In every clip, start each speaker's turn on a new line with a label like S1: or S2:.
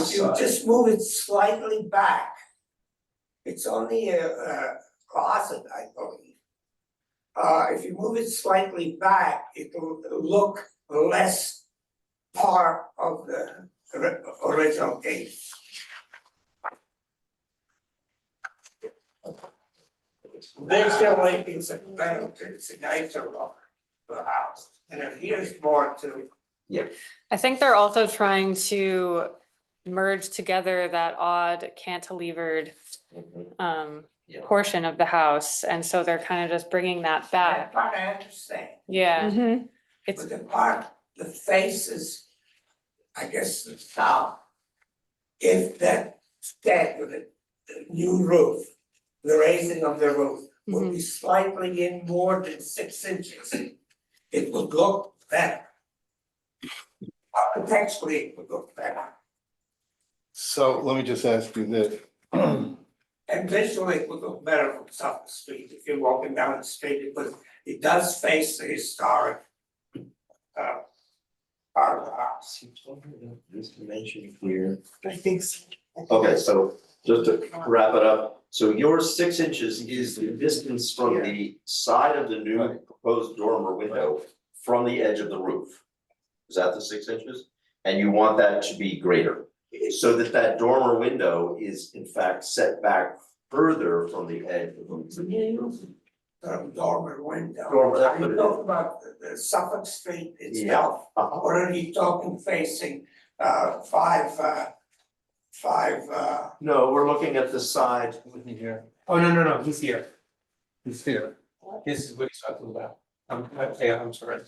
S1: If you
S2: side.
S1: just move it slightly back. It's only a, a closet, I believe. Uh, if you move it slightly back, it'll look less part of the ri- original gate. They're still making some benefits in nature of the house, and it appears more to,
S3: I think they're also trying to merge together that odd cantilevered
S2: Mhm.
S3: um
S2: Yeah.
S3: portion of the house, and so they're kind of just bringing that
S1: that
S3: back.
S1: part I understand.
S3: Yeah,
S4: Mhm.
S3: it's
S1: But the part, the faces, I guess the south. If that stand with a a new roof, the raising of the roof
S3: Mm-hmm.
S1: would be slightly in more than six inches. It would look better. Architecturally, it would look better,
S5: So let me just ask you this.
S1: and visually, it would look better from South Street, if you're walking down the street, because it does face the historic. Uh. Part of the house.
S2: This dimension here.
S6: I think so.
S2: Okay, so just to wrap it up, so your six inches is the distance from the side of the new proposed dormer window from the edge of the roof. Is that the six inches? And you want that to be greater, so that that dormer window is in fact set back further from the edge of the roof.
S1: um, dormer window.
S2: Dormer, that's what
S1: Are
S2: it
S1: you
S2: is.
S1: talking about the- the Suffolk Street itself,
S2: Uh-huh.
S1: or are you talking facing uh five uh five uh
S2: No, we're looking at the side.
S6: Here. Oh, no, no, no, he's here.
S5: It's here.
S6: This is what he's talking about. I'm, I'm- yeah, I'm sorry.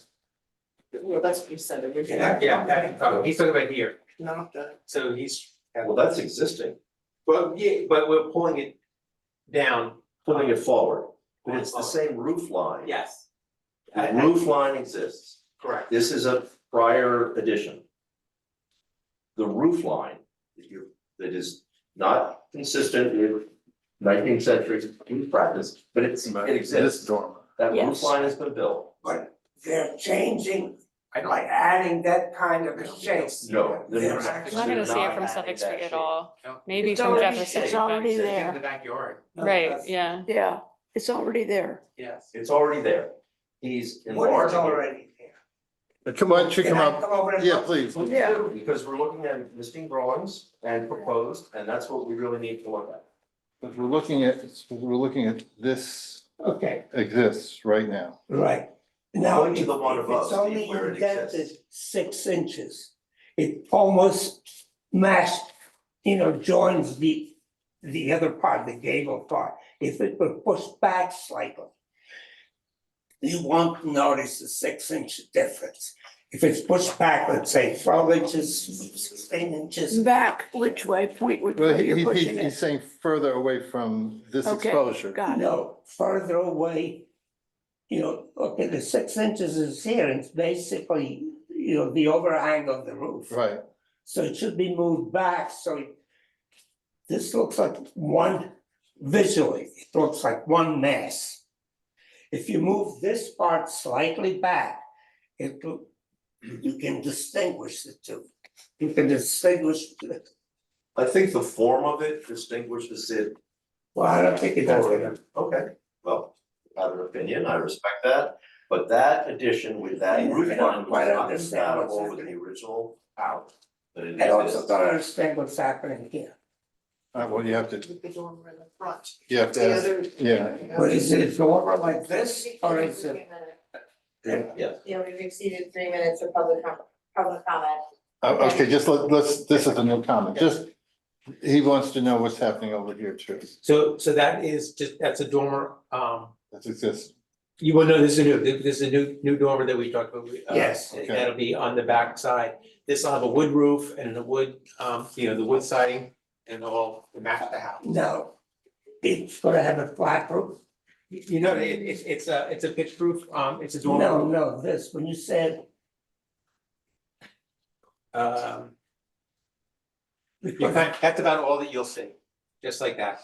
S4: Well, that's what you said originally.
S1: Yeah.
S6: Yeah, oh, he's talking about here.
S4: No, the-
S6: So he's,
S2: Well, that's existing,
S6: well, yeah, but we're pulling it down.
S2: pulling it forward, but it's the same roof line.
S6: Yes.
S2: The roof line exists.
S6: Correct.
S2: This is a prior addition. The roof line that you, that is not consistent with nineteenth century roof practice, but it's, it
S5: This
S2: exists.
S5: dormer.
S2: That roof
S4: Yes.
S2: line has been built.
S1: they're changing, by adding that kind of a shape.
S2: No, they're
S1: They're
S2: not.
S1: actually
S3: I'm not gonna see it
S2: Not
S3: from
S2: adding
S3: Suffolk
S2: that
S3: Street at
S2: shape.
S3: all,
S6: No.
S3: maybe
S4: It's
S3: from
S4: already-
S3: Jefferson,
S4: it's already
S6: It's
S4: there.
S6: In the backyard,
S1: No,
S3: right,
S1: that's-
S3: yeah.
S4: Yeah, it's already there.
S6: yes.
S2: It's already there.
S1: What
S2: He's
S1: is
S2: enlarging it.
S1: already here?
S5: Why don't you
S1: Can
S5: come
S1: I
S5: up?
S1: come over and
S5: Yeah,
S1: look?
S5: please.
S2: We
S4: Yeah.
S2: do, Because we're looking at existing drawings and proposed, and that's what we really need to look at.
S5: Because We're looking at, we're looking at this
S1: Okay,
S5: exists right now.
S1: right. Now,
S2: Going
S1: if
S2: to the one
S1: if
S2: above,
S1: it's
S2: Steve,
S1: only
S2: where it
S1: indented
S2: exists.
S1: six inches, it almost matched, you know, joins the the other part, the gable part, if it were pushed back slightly. You won't notice the six inch difference. If it's pushed back, let's say twelve inches, sixteen inches,
S4: Back which way, point which
S5: Well,
S4: way
S5: he,
S4: you're
S5: he-
S4: pushing
S5: he's
S4: it.
S5: saying further away from this
S4: Okay,
S5: exposure.
S4: Got it.
S1: no, further away. You know, okay, the six inches is here, and it's basically, you know, the overhang of the roof.
S5: Right.
S1: So it should be moved back, so it- this looks like one, visually, it looks like one mass. If you move this part slightly back, it, will- you can distinguish the two. You can distinguish, the-
S2: I think the form of it distinguishes it
S1: well, I don't think it does.
S2: Okay, well, I have an opinion, I respect that, but that addition with that
S1: Yeah, I
S2: roof
S1: don't
S2: line was
S1: quite
S2: not
S1: understand what's
S2: compatible with the
S1: happening.
S2: original house. But it
S1: I also
S2: exists.
S1: don't understand what's happening here.
S5: Uh, well, you have to,
S4: With the dormer in the front.
S5: you have to, ask- yeah.
S1: But is it over like this, or is it?
S2: Yes,
S7: Yeah, we've exceeded three minutes of public com- public comment.
S5: Uh, Okay, just let, let's, this is a new comment. Just, he wants to know what's happening over here too.
S6: So, so that is just, that's a dormer, um,
S5: That's exists.
S6: You will know this is a new, this is a new, new dormer that we talked about. uh,
S1: Yes.
S6: That'll be on the back side. This will have a wood roof and the wood, um, you know, the wood siding and all to match the house.
S1: No, it's gonna have a flat roof.
S6: You you know, it, it's, it's a, it's a pitch roof, um, it's a
S1: No,
S6: dormer.
S1: no, this, when you said
S6: Um, you kind- that's about all that you'll see, just like that.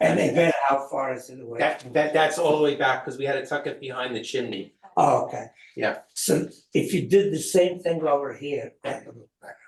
S1: And then how far is it away?
S6: That, that, that's all the way back because we had to tuck it behind the chimney.
S1: Oh, okay.
S6: Yeah.
S1: So if you did the same thing over here, that would look better.